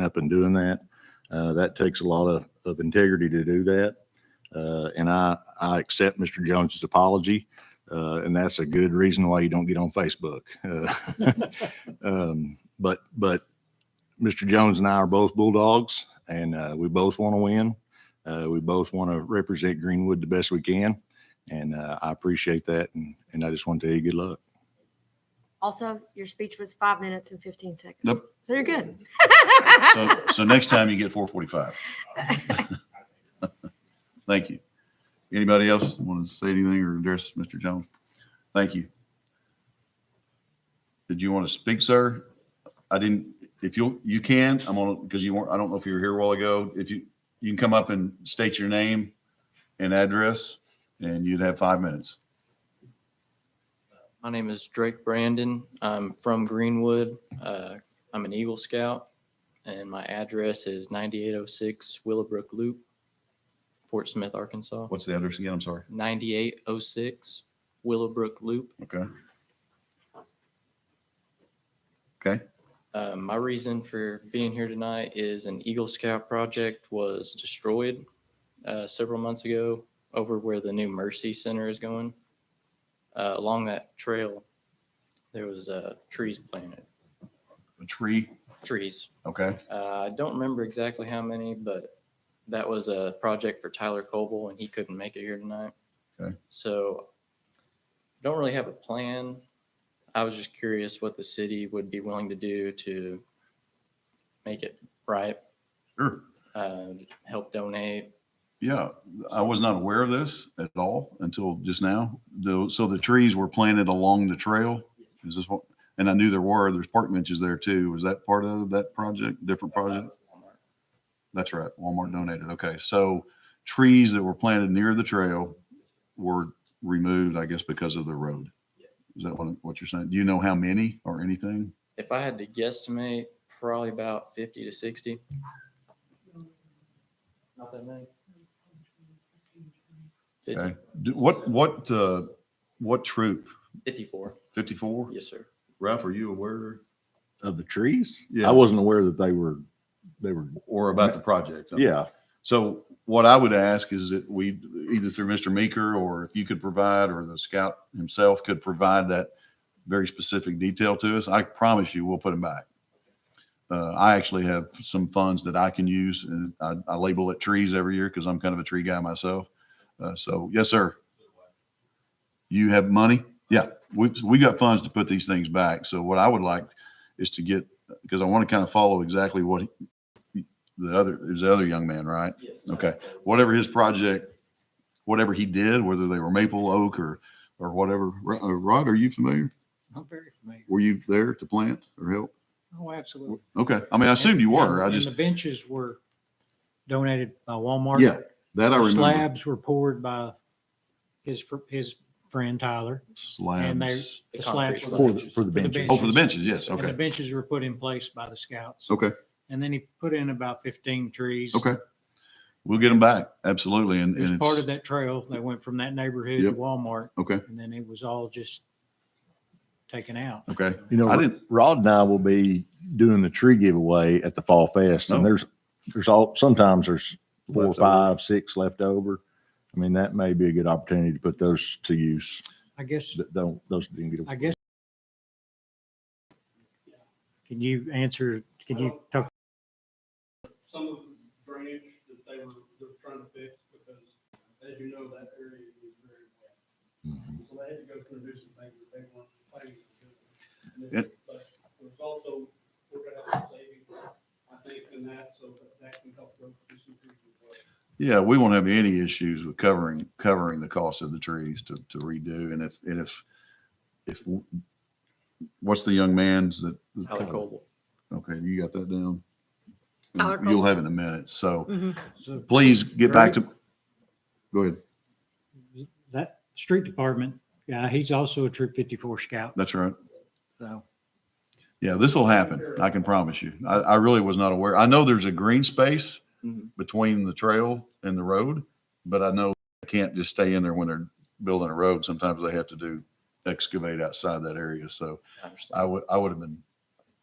up and doing that. Uh, that takes a lot of, of integrity to do that. Uh, and I, I accept Mr. Jones's apology. Uh, and that's a good reason why you don't get on Facebook. Uh, um, but, but Mr. Jones and I are both Bulldogs and, uh, we both want to win. Uh, we both want to represent Greenwood the best we can. And, uh, I appreciate that. And, and I just want to tell you good luck. Also, your speech was five minutes and 15 seconds. Nope. So you're good. So, so next time you get four forty-five. Thank you. Anybody else want to say anything or address Mr. Jones? Thank you. Did you want to speak, sir? I didn't, if you, you can, I'm on, because you weren't, I don't know if you were here a while ago. If you, you can come up and state your name and address, and you'd have five minutes. My name is Drake Brandon. I'm from Greenwood. Uh, I'm an Eagle Scout, and my address is 9806 Willowbrook Loop, Fort Smith, Arkansas. What's the address again? I'm sorry. 9806 Willowbrook Loop. Okay. Uh, my reason for being here tonight is an Eagle Scout project was destroyed uh, several months ago over where the new Mercy Center is going. Uh, along that trail, there was uh, trees planted. A tree. Trees. Okay. Uh, I don't remember exactly how many, but that was a project for Tyler Coble, and he couldn't make it here tonight. Okay. So, don't really have a plan. I was just curious what the city would be willing to do to make it right, Sure. uh, help donate. Yeah, I was not aware of this at all until just now. Though, so the trees were planted along the trail? Is this what, and I knew there were, there's park benches there too. Was that part of that project, different Uh, project? That's right, Walmart donated. Okay, so trees that were planted near the trail were removed, I guess, because of the road. Is that what, what you're saying? Do you know how many or anything? If I had to guesstimate, probably about 50 to 60. Not that many. 50 Okay. Do- What, what, uh, what troop? 54. Fifty-four? Yes, sir. Ralph, are you aware? Of the trees? Yeah. I wasn't aware that they were, they were, Or about the project? yeah. So what I would ask is that we, either through Mr. Meeker or if you could provide, or the scout himself could provide that very specific detail to us, I promise you, we'll put them back. Uh, I actually have some funds that I can use and I, I label it trees every year because I'm kind of a tree guy myself. Uh, so yes, sir. You have money? Yeah, we, we got funds to put these things back. So what I would like is to get, because I want to kind of follow exactly what he- the other, there's the other young man, right? Okay, whatever his project, whatever he did, whether they were maple, oak, or, or whatever. Ro- uh, Rod, are you familiar? I'm very familiar. Were you there to plant or help? Oh, absolutely. Okay, I mean, I assumed you were, I And just, the benches were donated by Walmart. Yeah, that I The remember. Slabs were poured by his, fr- his friend Tyler. and they- Slabs. The The concrete slabs. slabs. were- For the, for the For the benches. Oh, for the benches, yes, And the okay, benches were put in place by the scouts. okay, And then he put in about fifteen trees. okay. We'll get them back, absolutely, and, It was and part of it's, that trail. They went from that neighborhood to Yep. Walmart okay, and then it was all just taken out. okay. You know, I didn't- Rod and I will be doing the tree giveaway at the Fall Fest, and No. there's there's all sometimes there's four, Left over. five, six left over. I mean, that may be a good opportunity to put those to use. I guess, That don't those didn't get. I guess. Can you answer, can you talk some of the drainage that they were, they're trying to fix because, as you know, that area is very wet. Mhm. So they had to go through and do some things that they weren't planning to do. And then- But there's also, we're gonna have some savings, I think, in that, so that that can help those do some things as well. Yeah, we won't have any issues with covering, covering the cost of the trees to, to redo. And if, and if, if, what's the young man's that? Tyler Coble. Okay, you got that down? Tyler You'll Cole. have it in a minute. So Mm-hmm. so please get back to, go ahead. that street department guy, he's also a Troop 54 scout. That's right. So Yeah, this will happen. I can promise you. I, I really was not aware. I know there's a green space Mhm. between the trail and the road, but I know I can't just stay in there when they're building a road. Sometimes they have to do excavate outside that area. So I understand. I would, I would have been,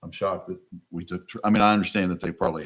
I'm shocked that we took, tr- I mean, I understand that they probably